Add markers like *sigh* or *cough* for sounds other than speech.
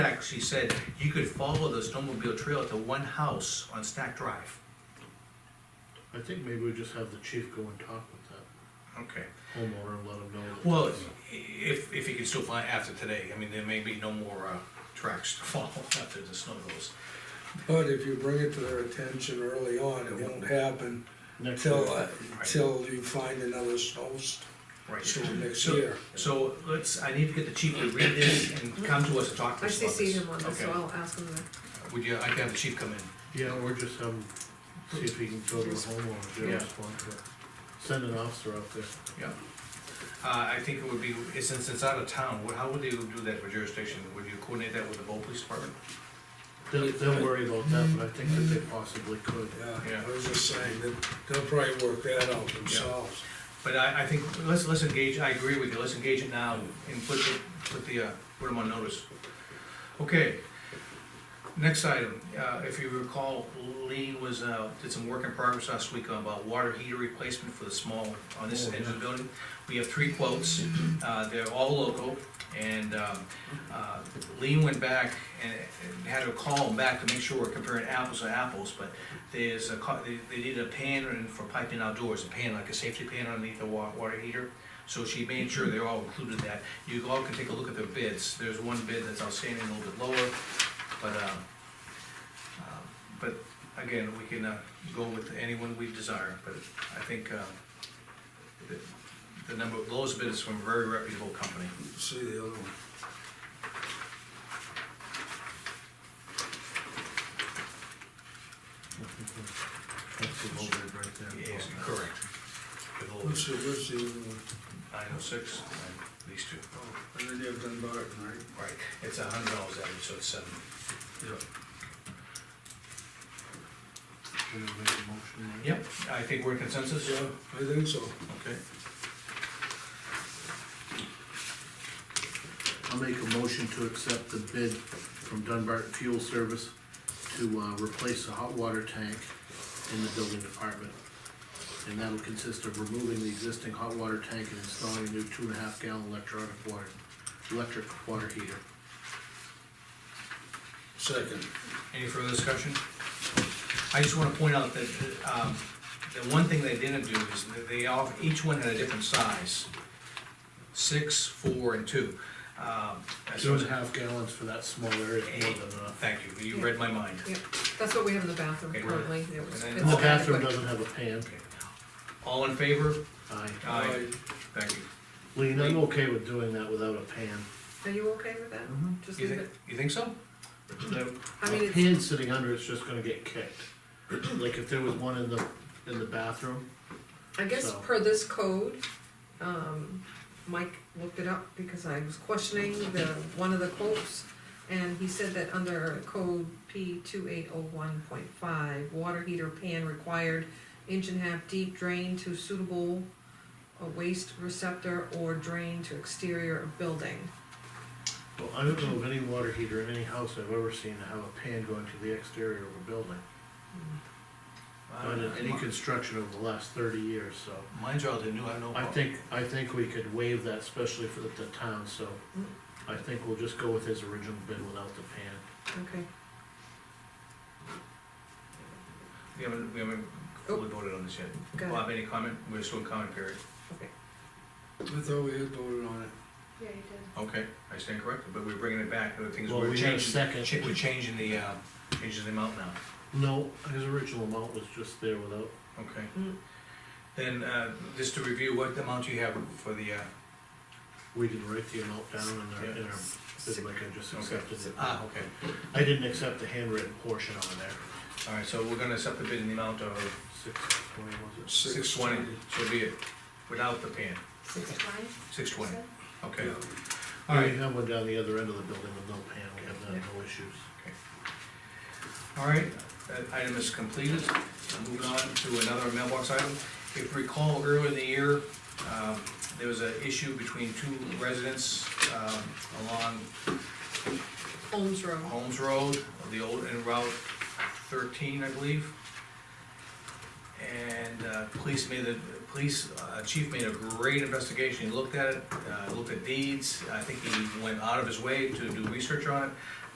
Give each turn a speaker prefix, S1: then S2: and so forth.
S1: fact, she said you could follow the snowmobile trail to one house on Stack Drive.
S2: I think maybe we just have the chief go and talk with that
S1: Okay.
S2: homeowner and let him know. that-
S1: Well, if, if you can still find after today, I mean, there may be no more, uh, tracks to *laughs* follow after the snow goes.
S3: But if you bring it to their attention early on, it won't happen
S2: Next
S3: till,
S2: week.
S3: uh, till you find another snowstorm
S1: Right.
S3: next
S1: So-
S3: year.
S1: So let's, I need to get the chief to read this and come to us and talk to
S4: I
S1: us about this.
S4: CC'd him on this, so
S1: Okay.
S4: I'll ask him to.
S1: Would you, I can have the chief come in.
S2: Yeah, or just have him see if he can go to the homeowner, get a
S1: Yeah.
S2: response, or send an officer out there.
S1: Yeah. Uh, I think it would be, since it's out of town, what- how would you do that for jurisdiction? Would you coordinate that with the Bow Police Department?
S2: They'll, they'll worry about that, but I think that they possibly could.
S3: Yeah,
S1: Yeah.
S3: I was just saying that they'll probably work that out themselves.
S1: But I, I think, let's, let's engage, I agree with you, let's engage it now and put, the- put the, uh, put them on notice. Okay. Next item, uh, if you recall, Lean was, uh, did some work in progress last week about water heater replacement for the small, on this
S2: Oh,
S1: end of the
S2: yeah.
S1: building. We have three quotes, uh, they're all local, and, um, uh, Lean went back and and had to call them back to make sure we're comparing apples to apples, but there's a, co- they, they needed a pan and for piping outdoors, a pan, like a safety pan underneath the wa- water heater. So she made sure they're all included in that. You all can take a look at their bids. There's one bid that's outstanding, a little bit lower, but, um, um, but again, we can, uh, go with anyone we desire, but I think, uh, the- the number, lowest bid is from a very reputable company.
S3: See the other one.
S2: That's the whole bit right there.
S1: Yes, correct. With all
S3: What's
S1: this
S3: the, what's the, other one?
S1: nine oh six, and these two.
S3: oh, and then you've done Barton, right?
S1: Right, it's a hundred dollars average, so it's seven.
S3: Yeah.
S2: Should we make a motion there?
S1: Yep, I think we're in consensus.
S3: Yeah, I think so.
S1: Okay.
S2: I'll make a motion to accept the bid from Dunbarton Fuel Service to, uh, replace the hot water tank in the building department. And that'll consist of removing the existing hot water tank and installing a new two and a half gallon electronic water, electric water heater.
S3: Second.
S1: Any further discussion? I just wanna point out that, um, the one thing they didn't do is that they all, each one had a different size. Six, four, and two. Um, as
S2: Two
S1: soon as-
S2: and a half gallons for that small area is more than enough.
S1: Thank you, you read my mind.
S4: Yeah, that's what we have in the bathroom
S1: Okay, right.
S4: currently. It was-
S1: And then-
S4: it's
S2: And the
S4: not that
S2: bathroom
S4: quick.
S2: doesn't have a pan.
S1: Okay. All in favor?
S2: Aye.
S1: Aye. Thank you.
S2: Lean, I'm okay with doing that without a pan.
S4: Are you okay with that? Just
S1: You
S4: leave
S1: think,
S4: it,
S1: you think so? No.
S4: I mean,
S2: A
S4: it's,
S2: pan sitting under it's just gonna get kicked. Like if there was one in the, in the bathroom,
S4: I guess
S2: so.
S4: per this code, um, Mike looked it up because I was questioning the, one of the quotes. And he said that under code P two eight oh one point five, water heater pan required inch and a half deep drain to suitable uh, waste receptor or drain to exterior of building.
S2: Well, I don't know of any water heater in any house I've ever seen to have a pan going to the exterior of a building. Not in any construction over the last thirty years, so.
S1: Uh, Mine's relatively new, I don't know.
S2: I think, I think we could waive that especially for the the town, so
S1: Mm.
S2: I think we'll just go with his original bid without the pan.
S4: Okay,
S1: We haven't, we haven't fully voted on this yet.
S4: Go ahead.
S1: Bob, any comment? We're still in comment period.
S4: okay.
S3: I thought we had voted on it.
S5: Yeah, you did.
S1: Okay, I stand corrected, but we're bringing it back, the things
S2: Well,
S1: we're
S2: we had a
S1: changing,
S2: second.
S1: cha- we're changing the, uh, changing the amount now,
S2: No, his original amount was just there without,
S1: okay?
S4: Mm.
S1: Then, uh, just to review, what amount you have for the, uh,
S2: we didn't write the amount down in our, in our
S4: Six-
S2: bid like I just
S1: Okay.
S2: accepted it.
S1: ah, okay.
S2: I didn't accept the handwritten portion on there,
S1: All right, so we're gonna accept the bid in the amount of
S2: six twenty was
S1: six twenty, so be it, without the pan,
S5: Six twenty,
S1: six
S5: you
S1: twenty,
S5: said?
S1: okay?
S2: it?
S1: All
S2: Yeah,
S1: right,
S2: We have one down the other end of the building with no pan, we have that, no issues.
S1: All right, that item is completed. Moving on to another mailbox item. If you recall, earlier in the year, um, there was an issue between two residents um, along
S4: Holmes Road.
S1: Holmes Road, the old, and Route thirteen, I believe. And, uh, police made the, police, uh, chief made a great investigation, he looked at it, uh, looked at deeds, I think he went out of his way to do research on it.